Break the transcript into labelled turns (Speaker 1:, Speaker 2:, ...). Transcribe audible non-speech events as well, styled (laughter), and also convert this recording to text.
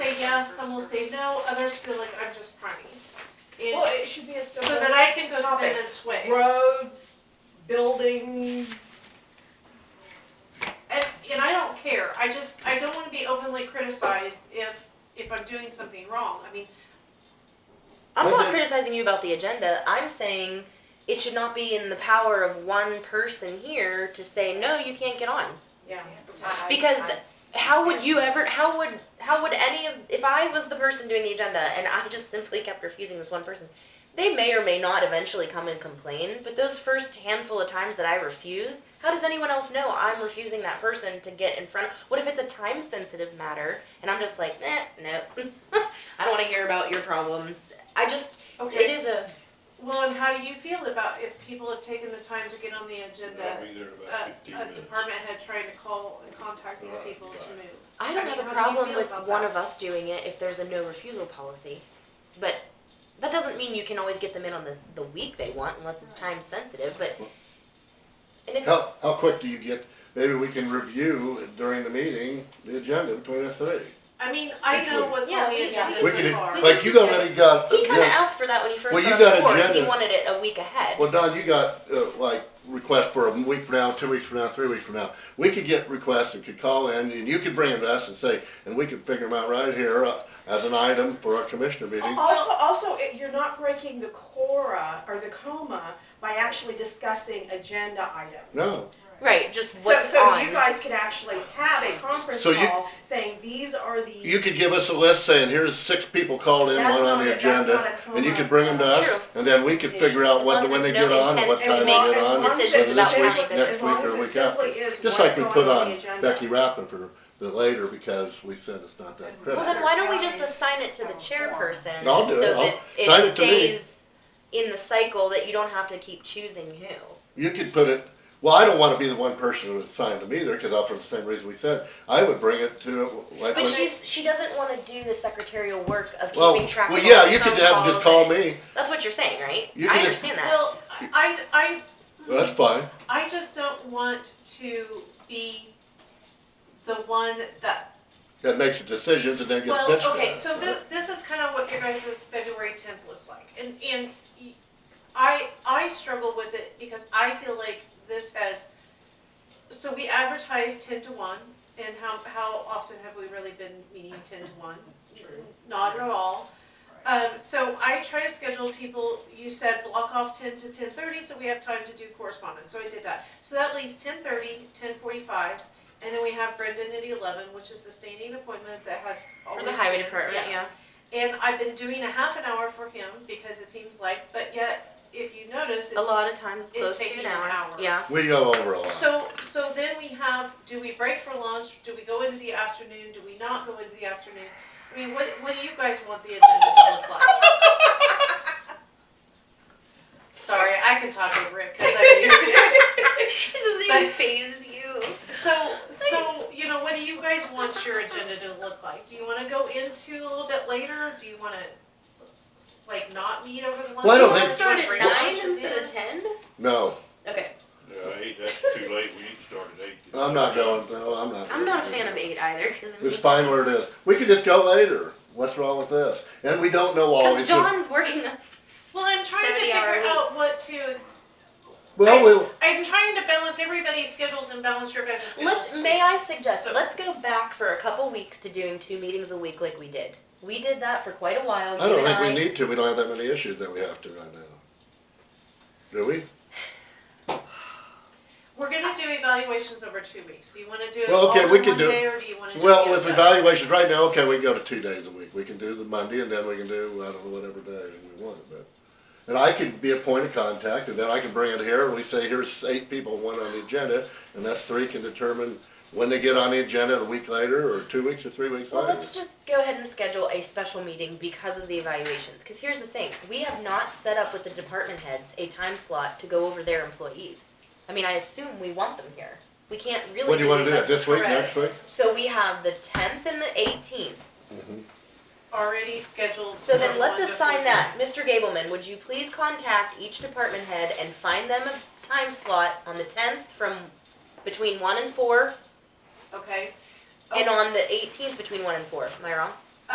Speaker 1: yes, some will say no, others feel like I'm just crying.
Speaker 2: Well,
Speaker 1: And
Speaker 2: it should be a
Speaker 1: so
Speaker 2: simple.
Speaker 1: that I can go to
Speaker 2: topic.
Speaker 1: them and sway.
Speaker 2: Roads, building,
Speaker 1: And, and I don't care, I just, I don't wanna be openly criticized if, if I'm doing something wrong, I mean,
Speaker 3: I'm
Speaker 4: Well,
Speaker 3: not
Speaker 4: then-
Speaker 3: criticizing you about the agenda. I'm saying it should not be in the power of one person here to say no, you can't get on.
Speaker 2: yeah.
Speaker 3: Because how would you ever? How would how would any of if I was the person doing the agenda and I just simply kept refusing this one person, they may or may not eventually come and complain. But those first handful of times that I refuse, how does anyone else know I'm refusing that person to get in front? What if it's a time sensitive matter and I'm just like, eh, no, (laughs) I don't want to hear about your problems. I just it
Speaker 1: okay,
Speaker 3: is a
Speaker 1: well, and how do you feel about if people have taken the time to get on the agenda? uh,
Speaker 5: I'll be there about fifteen
Speaker 1: A, a
Speaker 5: minutes.
Speaker 1: department head trying to call and contact these people to
Speaker 5: Right.
Speaker 1: move.
Speaker 3: I don't
Speaker 1: I mean,
Speaker 3: have
Speaker 1: how
Speaker 3: a
Speaker 1: do you
Speaker 3: problem
Speaker 1: feel
Speaker 3: with
Speaker 1: about
Speaker 3: one
Speaker 1: that?
Speaker 3: of us doing it if there's a no refusal policy. But that doesn't mean you can always get them in on the, the week they want unless it's time sensitive, but. And if,
Speaker 4: How, how quick do you get, maybe we can review during the meeting, the agenda between us three.
Speaker 1: I mean, I
Speaker 4: Which
Speaker 1: know
Speaker 4: one?
Speaker 1: what's
Speaker 3: Yeah,
Speaker 1: on
Speaker 3: we-
Speaker 1: the agenda
Speaker 3: we
Speaker 1: so
Speaker 4: We
Speaker 1: far.
Speaker 4: could, like, you already got,
Speaker 3: he kinda
Speaker 4: uh, yeah,
Speaker 3: asked for that when he first
Speaker 4: Well, you
Speaker 3: got on
Speaker 4: got
Speaker 3: the board, he
Speaker 4: agenda.
Speaker 3: wanted it a week ahead.
Speaker 4: well, Don, you got, uh, like, requests for a week from now, two weeks from now, three weeks from now. We could get requests and could call in, and you could bring them to us and say, and we could figure them out right here uh, as an item for our commissioner meeting.
Speaker 2: Also, also, it- you're not breaking the cora or the coma by actually discussing agenda items.
Speaker 4: No,
Speaker 3: Right, just
Speaker 2: So,
Speaker 3: what's
Speaker 2: so you
Speaker 3: on,
Speaker 2: guys could actually have a conference
Speaker 4: So you-
Speaker 2: call saying, these are the.
Speaker 4: you could give us a list saying, here's six people called in,
Speaker 2: That's
Speaker 4: one on
Speaker 2: not
Speaker 4: the
Speaker 2: a- that's not
Speaker 4: agenda,
Speaker 2: a
Speaker 4: and you
Speaker 2: coma.
Speaker 4: could bring them to us,
Speaker 3: True.
Speaker 4: and then we could figure out
Speaker 3: As
Speaker 4: what,
Speaker 3: long as
Speaker 4: when they
Speaker 3: it's no
Speaker 4: get on, and
Speaker 3: intent
Speaker 4: what time
Speaker 2: As
Speaker 3: to
Speaker 4: they
Speaker 2: long,
Speaker 3: make
Speaker 4: get
Speaker 2: as
Speaker 4: on,
Speaker 2: long
Speaker 4: whether
Speaker 2: as
Speaker 3: decisions
Speaker 2: it's
Speaker 4: this week
Speaker 3: about
Speaker 2: simply-
Speaker 3: what they-
Speaker 4: next
Speaker 2: as long
Speaker 4: week or
Speaker 2: as
Speaker 4: a
Speaker 2: it
Speaker 4: week after.
Speaker 2: simply is
Speaker 4: Just
Speaker 2: what's
Speaker 4: like we
Speaker 2: going on
Speaker 4: put
Speaker 2: the
Speaker 4: on
Speaker 2: agenda.
Speaker 4: Becky Rappin for the later because we said it's not that
Speaker 3: well
Speaker 4: critical.
Speaker 3: then why don't we just assign it to the chairperson?
Speaker 4: I'll do it. I'll-
Speaker 3: So
Speaker 4: assign
Speaker 3: that it
Speaker 4: it to me.
Speaker 3: stays in the cycle that you don't have to keep choosing who.
Speaker 4: You could put it, well, I don't wanna be the one person who assigned them either, cause I'll, for the same reason we said, I would bring it to, like.
Speaker 3: But
Speaker 4: when-
Speaker 3: she's she doesn't want to do the secretarial work of
Speaker 4: Well,
Speaker 3: keeping track
Speaker 4: well,
Speaker 3: of all
Speaker 4: yeah,
Speaker 3: the
Speaker 4: you
Speaker 3: phone
Speaker 4: could have, them just
Speaker 3: calls
Speaker 4: call
Speaker 3: and-
Speaker 4: me,
Speaker 3: That's what you're saying, right?
Speaker 4: You
Speaker 3: I
Speaker 4: can just-
Speaker 3: understand that.
Speaker 1: Well, I, I,
Speaker 4: Well, that's fine.
Speaker 1: I just don't want to be the one that,
Speaker 4: That makes the decisions and then gets
Speaker 1: well,
Speaker 4: pitched to
Speaker 1: okay,
Speaker 4: us,
Speaker 1: so
Speaker 4: right?
Speaker 1: this, this is kind of what your guys' February tenth looks like. And, and y- I, I struggle with it because I feel like this has, so we advertise ten to one, and how, how often have we really been meeting ten to one? Not at all. Um, so I try to schedule people, you said block off ten to ten thirty, so we have time to do correspondence, so I did that. So that leaves 10:30, 10:45, and then we have Brendan at eleven, which is the standing appointment that has
Speaker 3: For
Speaker 1: always
Speaker 3: the highway
Speaker 1: been-
Speaker 3: department, yeah.
Speaker 1: And I've been doing a half an hour for him, because it seems like, but yet, if you notice,
Speaker 3: A
Speaker 1: it's,
Speaker 3: lot of times it's
Speaker 1: it's
Speaker 3: close to
Speaker 1: taking
Speaker 3: an
Speaker 1: an
Speaker 3: hour.
Speaker 1: hour.
Speaker 3: Yeah.
Speaker 4: We go over a lot.
Speaker 1: so, so then we have, do we break for lunch, do we go into the afternoon, do we not go into the afternoon? I mean, what, what do you guys want the agenda to look like?
Speaker 3: (laughs)
Speaker 1: Sorry, I can talk over it, because I'm used to it.
Speaker 3: (laughs) (laughs) It doesn't
Speaker 1: even
Speaker 3: phase you.
Speaker 1: So, so, you know, what do you guys want your agenda to look like? Do you wanna go into a little bit later? Do you wanna, like, not meet over the lunch?
Speaker 4: Well, I don't
Speaker 1: hour? Do
Speaker 4: think-
Speaker 1: you
Speaker 3: Start
Speaker 1: wanna
Speaker 3: at
Speaker 1: bring
Speaker 3: nine
Speaker 1: lunches
Speaker 3: instead
Speaker 1: in?
Speaker 3: of ten.
Speaker 4: No,
Speaker 3: Okay.
Speaker 5: Yeah, eight, that's too late, we need to start at eight.
Speaker 4: I'm not going, no, I'm not.
Speaker 3: I'm not a
Speaker 4: going.
Speaker 3: fan of eight either. 'cause it
Speaker 4: It's
Speaker 3: means-
Speaker 4: fine where it is. We could just go later. What's wrong with this? And we don't know all
Speaker 3: Because
Speaker 4: these.
Speaker 3: Dawn's working. the-
Speaker 1: Well, I'm trying to
Speaker 3: 70 hour
Speaker 1: figure
Speaker 3: week.
Speaker 1: out what to, ex-
Speaker 4: Well, we'll,
Speaker 1: I'm trying to balance everybody's schedules and balance your guys' schedules.
Speaker 3: Let's.
Speaker 1: too.
Speaker 3: May I suggest?
Speaker 1: So-
Speaker 3: Let's go back for a couple weeks to doing two meetings a week like we did. We did that for quite a while.
Speaker 4: I
Speaker 3: you
Speaker 4: don't
Speaker 3: and
Speaker 4: think
Speaker 3: I.
Speaker 4: we need to. We don't have that many issues that we have to right now. Do we?
Speaker 1: We're gonna do evaluations over two weeks. Do you wanna do it
Speaker 4: Well,
Speaker 1: all
Speaker 4: okay,
Speaker 1: in
Speaker 4: we can
Speaker 1: one
Speaker 4: do-
Speaker 1: day, or do you wanna just?
Speaker 4: Well,
Speaker 1: get
Speaker 4: with
Speaker 1: it done?
Speaker 4: evaluations right now, okay, we can go to two days a week. We can do the Monday and then we can do, I don't know, whatever day we want, but. And I can be a point of contact and then I can bring it here and we say, here's eight people, one on the agenda. And that's three can determine when they get on the agenda, a week later or two weeks or three weeks
Speaker 3: Well,
Speaker 4: later.
Speaker 3: let's just go ahead and schedule a special meeting because of the evaluations, cause here's the thing, we have not set up with the department heads a time slot to go over their employees. I mean, I assume we want them here, we can't really.
Speaker 4: When do you wanna do
Speaker 3: that.
Speaker 4: that? This week,
Speaker 1: Correct.
Speaker 4: next week?
Speaker 3: So we have the tenth and the eighteenth,
Speaker 4: Mm-hmm.
Speaker 1: Already scheduled.
Speaker 3: so then
Speaker 1: for
Speaker 3: let's
Speaker 1: one to
Speaker 3: assign
Speaker 1: four.
Speaker 3: that, Mr. Gableman, would you please contact each department head and find them a time slot on the tenth from between one and four,
Speaker 1: Okay.
Speaker 3: and on the eighteenth between one and four, am I wrong?